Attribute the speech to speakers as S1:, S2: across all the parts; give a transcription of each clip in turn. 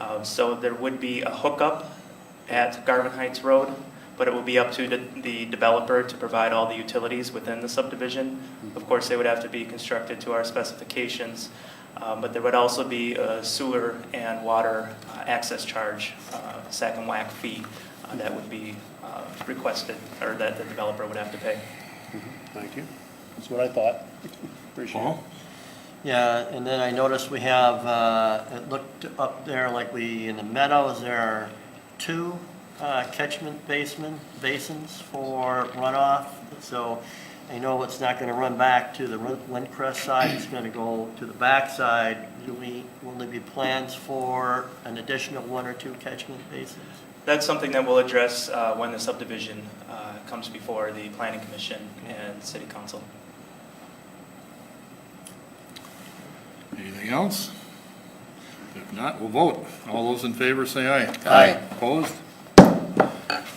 S1: Uh, So there would be a hookup at Garvin Heights Road, but it will be up to the- the developer to provide all the utilities within the subdivision. Of course, they would have to be constructed to our specifications, um, but there would also be a sewer and water uh, access charge, uh, sack and whack fee, uh, that would be uh, requested, or that the developer would have to pay.
S2: Mm-hmm. Thank you. That's what I thought. Appreciate it.
S3: Paul?
S4: Yeah, and then I noticed we have, uh, it looked up there like we, in the meadows, there are two uh, catchment basement, basins for runoff. So I know it's not going to run back to the Rin- Windcrest side, it's going to go to the backside. Do we, will there be plans for an additional one or two catchment basins?
S1: That's something that we'll address uh, when the subdivision uh, comes before the planning commission and city council.
S3: Anything else? If not, we'll vote. All those in favor say aye.
S4: Aye.
S3: Opposed?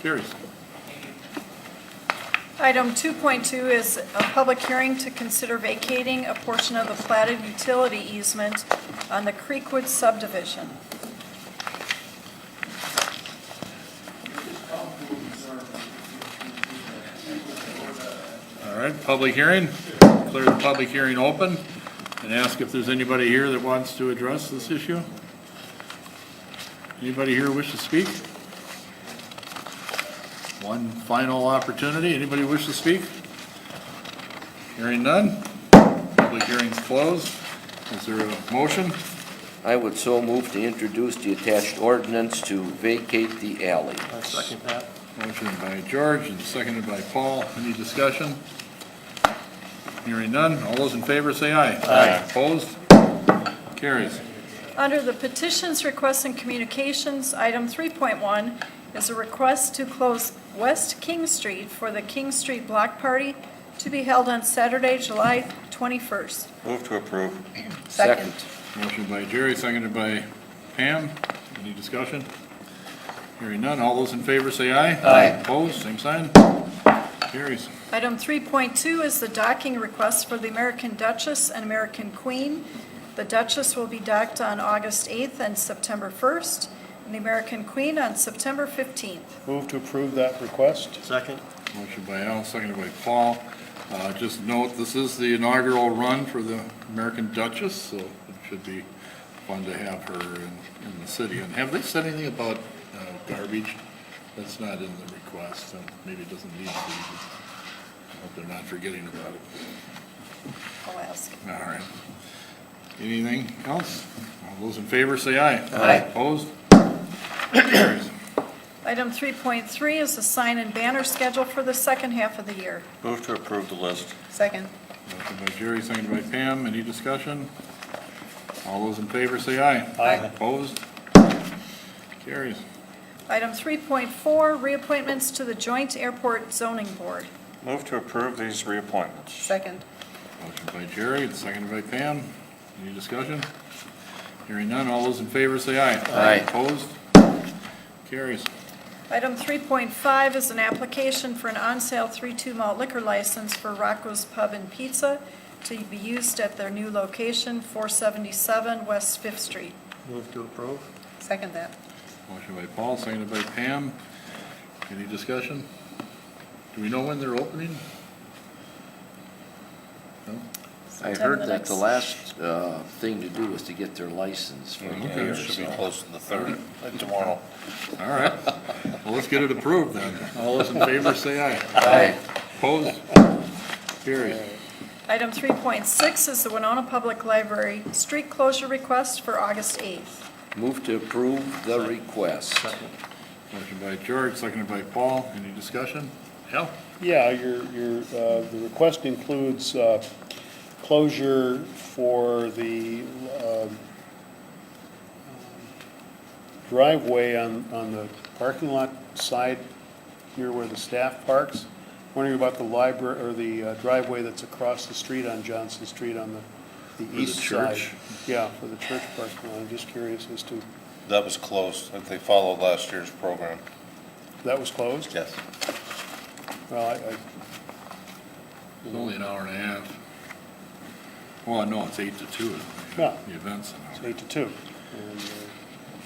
S3: Carries.
S5: Item 2.2 is a public hearing to consider vacating a portion of the platted utility easement on the Creekwood subdivision.
S3: All right, public hearing. Declare the public hearing open and ask if there's anybody here that wants to address this issue. Anybody here wish to speak? One final opportunity. Anybody wish to speak? Hearing none. Public hearing's closed. Is there a motion?
S6: I would so move to introduce the attached ordinance to vacate the alley.
S4: I Uh, second that.
S3: Motion by George and seconded by Paul. Any discussion? Hearing none. All those in favor say aye. Aye. Opposed? Carries.
S5: Under the petitions, requests, and communications, item 3.1 is a request to close West King Street for the King Street Block Party to be held on Saturday, July 21st.
S7: Move to approve.
S5: Second.
S3: Motion by Jerry, seconded by Pam. Any discussion? Hearing none. All those in favor say aye. Aye. Opposed? Same sign. Carries.
S5: Item 3.2 is the docking request for the American Duchess and American Queen. The Duchess will be docked on August 8th and September 1st, and the American Queen on September 15th.
S2: Move to approve that request.
S4: Second?
S3: Motion by Al, seconded by Paul. Uh, Just note, this is the inaugural run for the American Duchess, so it should be fun to have her in, in the city. And have they said anything about uh, garbage? That's not in the request, so maybe it doesn't need to be. I hope they're not forgetting about it.
S5: I'll ask.
S3: All right. Anything else? All those in favor, say aye.
S6: Aye.
S3: Opposed? Carries.
S5: Item 3.3 is the sign and banner schedule for the second half of the year.
S7: Move to approve the list.
S5: Second.
S3: Motion by Jerry, seconded by Pam. Any discussion? All those in favor say aye.
S5: Aye.
S3: Opposed? Carries.
S5: Item 3.4, reappointments to the Joint Airport Zoning Board.
S7: Move to approve these reappointments.
S5: Second.
S3: Motion by Jerry, and seconded by Pam. Any discussion? Hearing none. All those in favor say aye.
S6: Aye.
S3: Opposed? Carries.
S5: Item 3.5 is an application for an on-sale 3-2 malt liquor license for Rocco's Pub and Pizza to be used at their new location, 477 West Fifth Street.
S4: Move to approve?
S5: Second that.
S3: Motion by Paul, seconded by Pam. Any discussion? Do we know when they're opening? No?
S6: I heard that the last uh, thing to do was to get their license for the
S3: Okay.
S6: mayor,
S7: Should be
S6: so-
S7: close to the third tomorrow.
S3: All right. Well, let's get it approved then. All those in favor say aye.
S6: Aye.
S3: Opposed? Carries.
S5: Item 3.6 is the Winona Public Library street closure request for August 8th.
S6: Move to approve the request.
S3: Motion by George, seconded by Paul. Any discussion? Al?
S2: Yeah, your, your, uh, the request includes uh, closure for the um, driveway on, on the parking lot side here where the staff parks. Wondering about the library, or the uh, driveway that's across the street on Johnson Street on the, the
S3: the
S2: east side.
S3: church?
S2: Yeah, for the church parking lot. I'm just curious as to,
S7: That was closed, if they followed last year's program.
S2: that was closed?
S7: Yes.
S2: Well, I, I
S3: It's only an hour and a half. Well, no, it's eight to two.
S2: Yeah.
S3: The event's an hour.
S2: It's eight to two. And, uh,